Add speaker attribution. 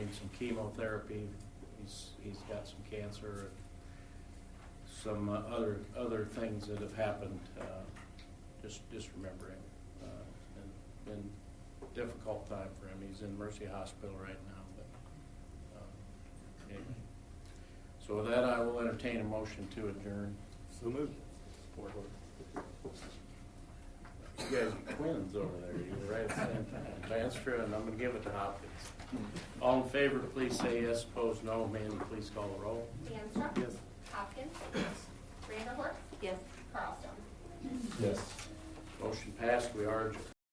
Speaker 1: some chemotherapy. He's, he's got some cancer and some uh, other, other things that have happened, uh, just, just remembering. Uh, and Been difficult time for him. He's in Mercy Hospital right now, but, um, anyway. So with that, I will entertain a motion to adjourn.
Speaker 2: So moved.
Speaker 1: You guys are twins over there, you were right at the same time. Vanstra, and I'm gonna give it to Hopkins. All in favor, please say yes, opposed no. Mandy, please call the roll.
Speaker 3: DeAnstruck?
Speaker 1: Yes.
Speaker 3: Hopkins? Yes. Vanderhorst? Yes. Carlstone?
Speaker 2: Yes.
Speaker 1: Motion passed, we are adjourned.